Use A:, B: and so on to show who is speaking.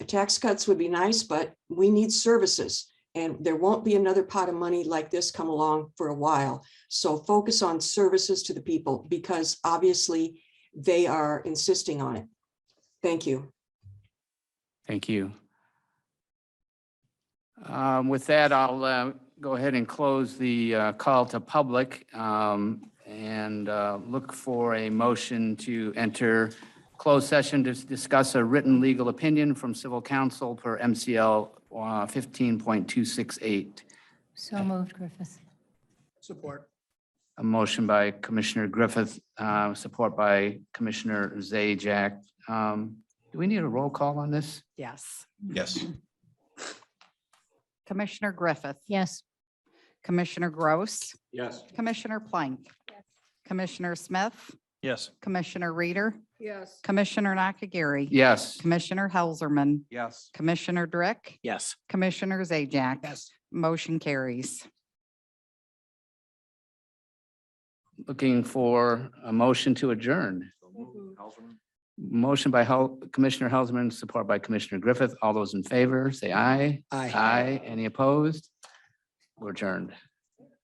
A: tax cuts would be nice, but we need services. And there won't be another pot of money like this come along for a while. So focus on services to the people because obviously they are insisting on it. Thank you.
B: Thank you. Um, With that, I'll uh, go ahead and close the uh, call to public um, and uh, look for a motion to enter closed session to discuss a written legal opinion from civil counsel per MCL uh, 15.268.
C: So moved, Griffith.
D: Support.
B: A motion by Commissioner Griffith, uh, support by Commissioner Zajac. Um, Do we need a roll call on this?
E: Yes.
D: Yes.
E: Commissioner Griffith.
C: Yes.
E: Commissioner Gross.
D: Yes.
E: Commissioner Plank. Commissioner Smith.
D: Yes.
E: Commissioner Reader. Yes. Commissioner Nakagiri.
B: Yes.
E: Commissioner Helserman.
D: Yes.
E: Commissioner Drick.
D: Yes.
E: Commissioner Zajac.
D: Yes.
E: Motion carries.
B: looking for a motion to adjourn. Motion by Hel- Commissioner Helserman, support by Commissioner Griffith. All those in favor, say aye.
D: Aye.
B: Aye. Any opposed? We're adjourned.